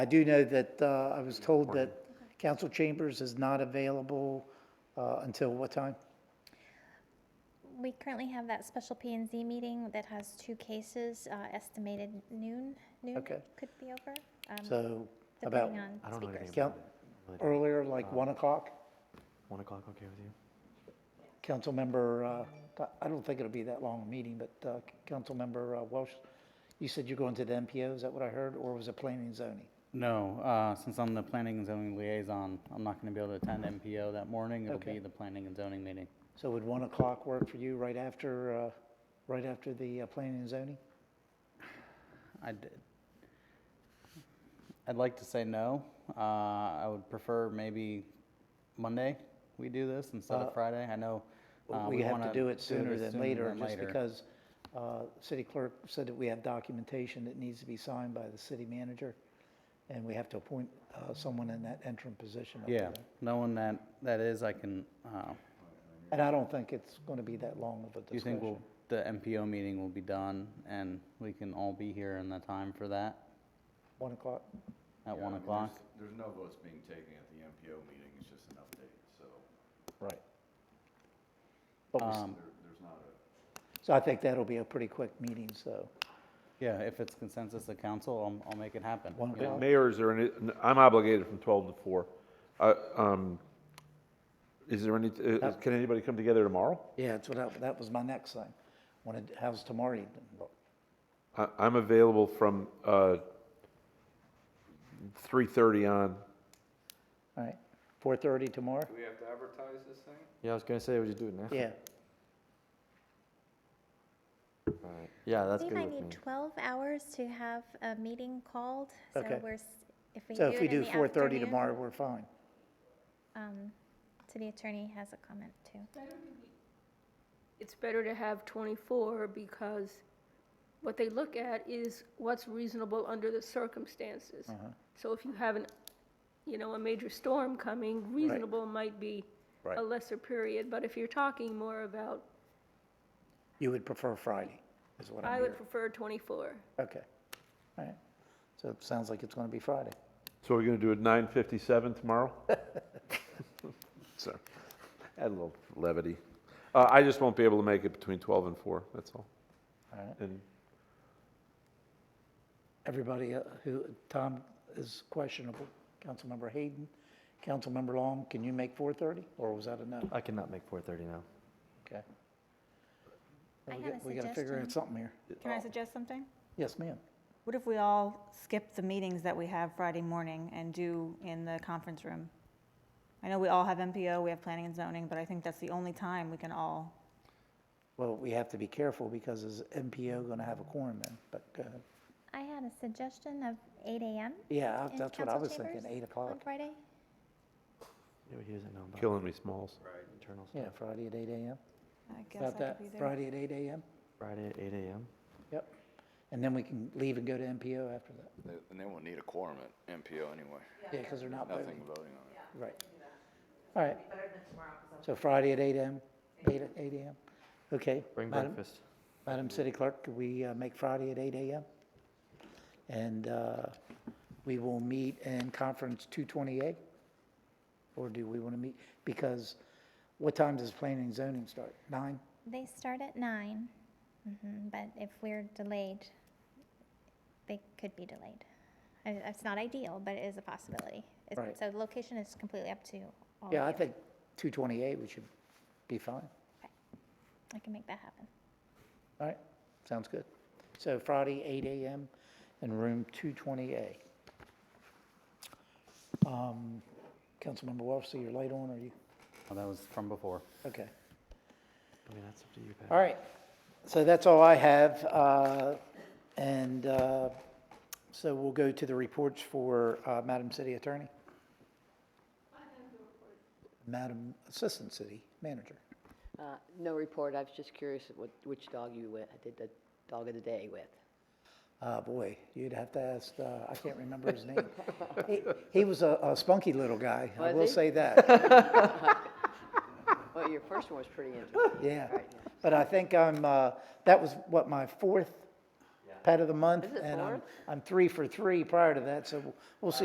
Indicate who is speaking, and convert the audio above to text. Speaker 1: I do know that, uh, I was told that council chambers is not available, uh, until what time?
Speaker 2: We currently have that special P and Z meeting that has two cases, uh, estimated noon, noon
Speaker 1: Okay.
Speaker 2: could be over. um,
Speaker 1: So about
Speaker 2: Depending on Uh-huh.
Speaker 3: I don't know
Speaker 2: speakers.
Speaker 3: anything
Speaker 1: count,
Speaker 3: about it. Really don't.
Speaker 1: earlier, like one o'clock?
Speaker 3: One o'clock, okay with you?
Speaker 1: Councilmember, uh, I don't think it'll be that long a meeting, but uh, Councilmember uh, Welsh, you said you're going to the MPO, is that what I heard, or was it planning and zoning?
Speaker 4: No, uh, since I'm the planning and zoning liaison, I'm not going to be able to attend MPO that morning. It'll
Speaker 1: Okay.
Speaker 4: be the planning and zoning meeting.
Speaker 1: So would 1 o'clock work for you right after, uh, right after the uh, planning and zoning?
Speaker 4: I'd, I'd like to say no. Uh, I would prefer maybe Monday we do this instead
Speaker 1: Uh,
Speaker 4: of Friday. I know. uh,
Speaker 1: We have to
Speaker 4: wanna
Speaker 1: do it sooner
Speaker 4: this
Speaker 1: than later,
Speaker 4: than
Speaker 1: just
Speaker 4: later.
Speaker 1: because uh, city clerk said that we have documentation that needs to be signed by the city manager, and we have to appoint uh, someone in that interim position. up
Speaker 4: Yeah,
Speaker 1: there.
Speaker 4: knowing that, that is, I can, uh,
Speaker 1: And I don't think it's going to be that long of a
Speaker 4: do you think
Speaker 1: discussion.
Speaker 4: we'll, the MPO meeting will be done and we can all be here in the time for that
Speaker 1: 1 o'clock?
Speaker 4: at
Speaker 5: Yeah, I
Speaker 4: one
Speaker 5: mean,
Speaker 4: o'clock?
Speaker 5: there's- There's no votes being taken at the MPO meeting, it's just an update, so
Speaker 1: Right. But we-
Speaker 4: Um,
Speaker 5: there, there's not a,
Speaker 1: So I think that'll be a pretty quick meeting, so.
Speaker 4: Yeah, if it's consensus of council, I'll, I'll make it happen.
Speaker 1: One
Speaker 4: you know?
Speaker 1: o'clock.
Speaker 6: Mayor, is there any, I'm obligated from 12 to 4. Uh, um, Is there any, uh, can anybody come together tomorrow?
Speaker 1: Yeah, that's what, I- that was my next thing. Wanted, how's tomorrow evening? look?
Speaker 6: I- I'm available from uh, 3:30 on.
Speaker 1: All right, 4:30 tomorrow?
Speaker 5: do we have to advertise this thing?
Speaker 3: Yeah, I was gonna say, we just do it now.
Speaker 1: Yeah,
Speaker 3: Alright. Yeah, that's
Speaker 2: We
Speaker 3: good
Speaker 2: might
Speaker 3: with me.
Speaker 2: need twelve hours to have a meeting called, so
Speaker 1: Okay.
Speaker 2: we're, s- if we do
Speaker 1: so if we
Speaker 2: it in
Speaker 1: do
Speaker 2: the
Speaker 1: 4:30
Speaker 2: afternoon,
Speaker 1: tomorrow, we're fine.
Speaker 2: um, City attorney has a comment too.
Speaker 7: it's better to have 24 because what they look at is what's reasonable under the circumstances.
Speaker 1: Uh-huh.
Speaker 7: So if you have an, you know, a major storm coming, reasonable might be
Speaker 1: Right.
Speaker 7: a lesser period. But if you're talking more about,
Speaker 1: You would prefer Friday, is what I'm
Speaker 7: I would
Speaker 1: hearing?
Speaker 7: prefer 24.
Speaker 1: Okay, all right. So it sounds like it's going to be Friday.
Speaker 6: So we're going to do it 9:57 tomorrow? So, add a little levity. Uh, I just won't be able to make it between 12 and 4, that's all.
Speaker 1: All right.
Speaker 6: And
Speaker 1: Everybody uh, who, Tom is questionable. Councilmember Hayden, Councilmember Long, can you make 4:30? Or was that a no?
Speaker 3: I cannot make four thirty now.
Speaker 1: Okay.
Speaker 2: I
Speaker 1: We
Speaker 2: had
Speaker 1: got-
Speaker 2: a
Speaker 1: We got to figure out
Speaker 2: suggestion.
Speaker 1: something here.
Speaker 8: Can I suggest something?
Speaker 1: Yes, ma'am.
Speaker 8: Oh. What if we all skip the meetings that we have Friday morning and do in the conference room? I know we all have MPO, we have planning and zoning, but I think that's the only time we can all,
Speaker 1: Well, we have to be careful because is MPO going to have a quorum then? But, go ahead.
Speaker 2: I had a suggestion of eight AM
Speaker 1: yeah, I-
Speaker 2: in
Speaker 1: that's what I
Speaker 2: council
Speaker 1: was thinking,
Speaker 2: chambers
Speaker 1: 8
Speaker 2: on
Speaker 1: o'clock.
Speaker 2: Friday.
Speaker 3: Yeah, but he doesn't know about
Speaker 6: killing me, Smalls.
Speaker 3: internal
Speaker 1: Yeah,
Speaker 3: stuff.
Speaker 1: Friday at 8 AM.
Speaker 8: I guess I
Speaker 1: About
Speaker 8: could
Speaker 1: that,
Speaker 8: be there.
Speaker 1: Friday at 8 AM?
Speaker 3: Friday at eight AM.
Speaker 1: Yep. And then we can leave and go to MPO after that.
Speaker 5: They- And they won't need a quorum at MPO anyway,
Speaker 1: Yeah, because they're not
Speaker 5: nothing
Speaker 1: voting.
Speaker 5: voting on it.
Speaker 1: Right. All right. So Friday at 8 AM, 8 at 8 AM? Okay.
Speaker 3: Bring
Speaker 1: Madam-
Speaker 3: breakfast.
Speaker 1: Madam City Clerk, could we uh, make Friday at 8 AM? And uh, we will meet in Conference 228? Or do we want to meet, because what time does planning and zoning start? Nine?
Speaker 2: They start at nine, mhm, but if we're delayed, they could be delayed. I- It's not ideal, but it is a possibility. It's-
Speaker 1: Right.
Speaker 2: So the location is completely up to all of you.
Speaker 1: Oh, Yeah, I think 228, we should be fine.
Speaker 2: I can make that happen.
Speaker 1: All right, sounds good. So Friday, 8 AM in room 220A. Um, Councilmember Welch, see your light on, are you,
Speaker 4: Oh, That was from before.
Speaker 1: okay.
Speaker 3: I mean, that's up to you, Pat.
Speaker 1: All right, so that's all I have, uh, and uh, so we'll go to the reports for uh, Madam City Attorney. Madam Assistant City Manager.
Speaker 9: Uh, No report, I was just curious what, which dog you went, did the dog of the day with?
Speaker 1: Ah, boy, you'd have to ask, uh, I can't remember his name. He- He was a a spunky little guy, I
Speaker 9: Was
Speaker 1: will
Speaker 9: he?
Speaker 1: say that,
Speaker 9: Well, your first one was pretty interesting.
Speaker 1: yeah.
Speaker 9: Right, yeah.
Speaker 1: But I think I'm, uh, that was what, my fourth pet of the month.
Speaker 9: Is it
Speaker 1: And I'm,
Speaker 9: fourth?
Speaker 1: I'm three for three prior to that, so we'll see